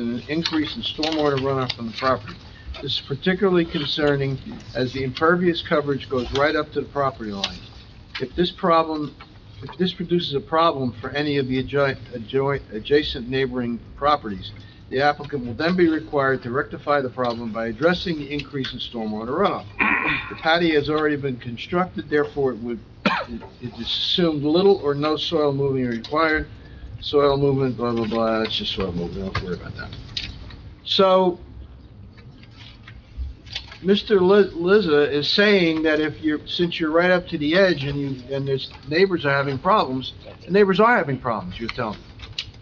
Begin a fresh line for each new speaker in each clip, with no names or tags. an increase in stormwater runoff from the property. This is particularly concerning as the impervious coverage goes right up to the property line. If this problem, if this produces a problem for any of the adjoint, adjoint, adjacent neighboring properties, the applicant will then be required to rectify the problem by addressing the increase in stormwater runoff. The patio has already been constructed, therefore it would, it is assumed little or no soil moving required. Soil movement, blah, blah, blah, that's just soil movement, don't worry about that. So, Mr. Li- Lizza is saying that if you're, since you're right up to the edge and you, and there's, neighbors are having problems, the neighbors are having problems, you're telling me.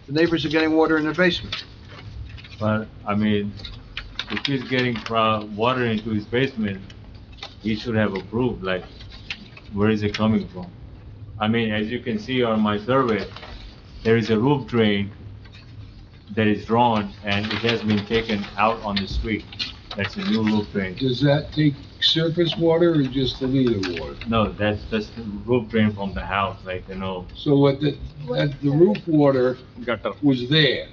The neighbors are getting water in their basement.
But, I mean, if he's getting pro- water into his basement, he should have approved, like, where is it coming from? I mean, as you can see on my survey, there is a roof drain that is drawn, and it has been taken out on the street. That's a new roof drain.
Does that take surface water or just the leader water?
No, that's, that's the roof drain from the house, like, you know,
So what the, that, the roof water was there.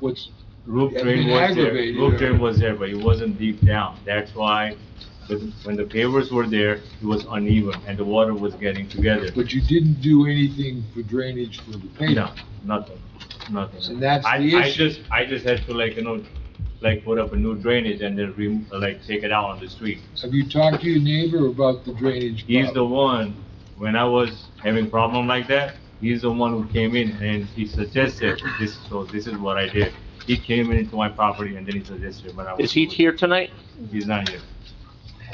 What's,
Roof
Yeah,
drain
been
was there,
aggravated,
roof
yeah.
drain was there, but it wasn't deep down, that's why, the- when the pavers were there, it was uneven, and the water was getting together.
but you didn't do anything for drainage for the
No,
pavement.
nothing, nothing.
So that's
I-
the
I
issue.
just, I just had to like, you know, like put up a new drainage and then re, like take it out on the street.
Have you talked to your neighbor about the drainage?
He's the
problem?
one, when I was having problem like that, he's the one who came in and he suggested this, so this is what I did. He came into my property and then he suggested, but I was.
Is he here tonight?
He's not here.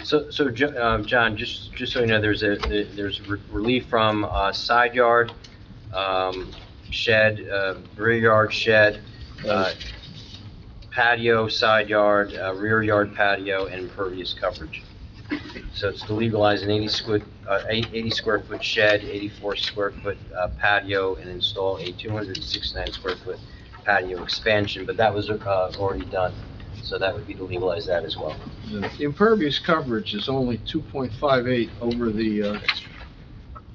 So, so, Jo- uh, John, just, just so you know, there's a, there's re- relief from uh, side yard, um, shed, uh, rear yard shed, uh, patio, side yard, uh, rear yard patio, and impervious coverage. So it's to legalize an 80 squid, uh, eight- 80 square foot shed, 84 square foot uh, patio, and install a 269 square foot patio expansion, but that was uh, already done, so that would be to legalize that as well.
The impervious coverage is only 2.58 over the, uh,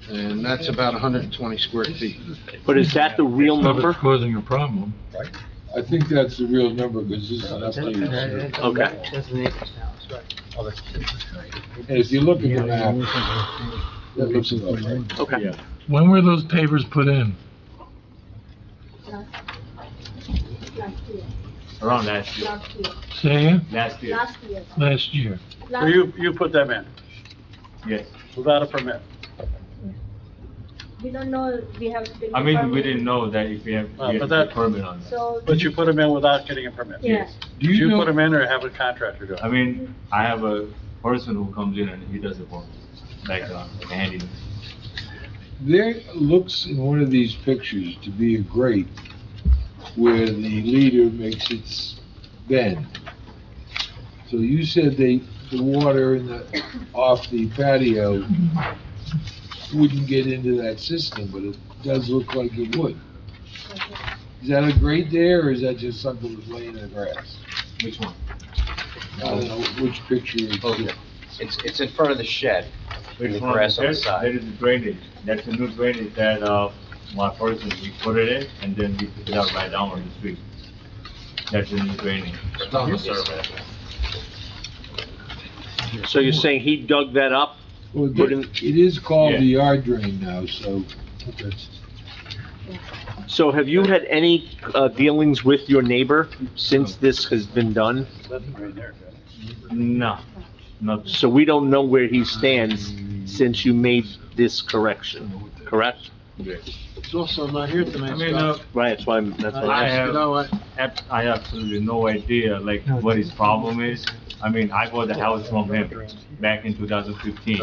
and that's about 120 square feet.
But is that the real number?
causing a problem.
I think that's the real number, because this is an updated survey.
Okay.
And if you look at the map, that looks about right.
Okay.
When were those pavers put in?
Last year,
around last year,
last year,
Say it,
last year,
last year.
last year.
So you, you put them in
yes.
without a permit?
We don't know, we have. been
I mean, we
informed.
didn't know that if we have,
Uh,
Ah,
we
but
have a
that-
permit on that.
So.
But you put them in without getting a permit?
Yeah.
Do
Did
you
you put
know,
them in or have a contractor do it?
I mean, I have a person who comes in and he does it for me, like, uh, handy.
there looks in one of these pictures to be a grate where the leader makes its bend. So you said they, the water in the, off the patio wouldn't get into that system, but it does look like it would. Is that a grate there, or is that just something that's laying in the grass?
Which one?
I don't know which picture it's
Okay. It's, it's in front of the shed, in the
Which one?
grass on the
There- There
side.
is a drainage, that's a new drainage that, uh, my person, we put it in and then we put it out right down on the street. That's a new drainage.
on the survey.
So you're saying he dug that up?
Well,
But in-
it is called
Yeah.
the yard drain now, so that's,
So have you had any uh, dealings with your neighbor since this has been done?
That's right there.
No, not,
So we don't know where he stands since you made this correction, correct?
It's also not here
I
tonight,
mean,
Scott.
uh,
Right, that's why I'm, that's why
I
I'm asking.
have-
You know what?
ab- I have absolutely no idea, like, what his problem is. I mean, I bought the house from him back in two thousand fifteen.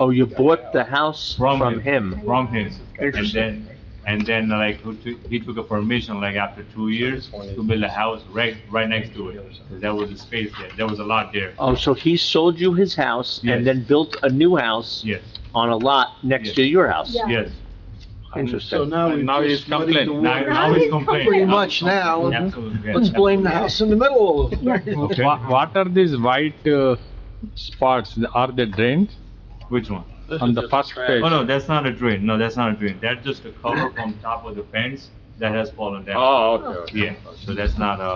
Oh, you bought the house from him?
From him, and
Interesting.
then, and then like, who took- he took a permission, like, after two years, to build a house right, right next to it, because there was a space there, there was a lot there,
Oh, so he sold you his house
Yes.
and then built a new house
yes,
on a lot next
Yes.
to your house?
Yeah.
yes.
So
Interesting.
now we've
Now he's
just muddied the
complaining, now,
water.
now he's complaining.
Pretty much now,
Absolutely,
let's
yeah.
blame the house in the middle of it.
Wha- What are these white uh, spots? Are they drains?
Which one?
On the first page.
Oh, no, that's not a drain, no, that's not a drain, that's just a cover from top of the fence that has fallen down,
Oh, okay.
yeah, so that's not a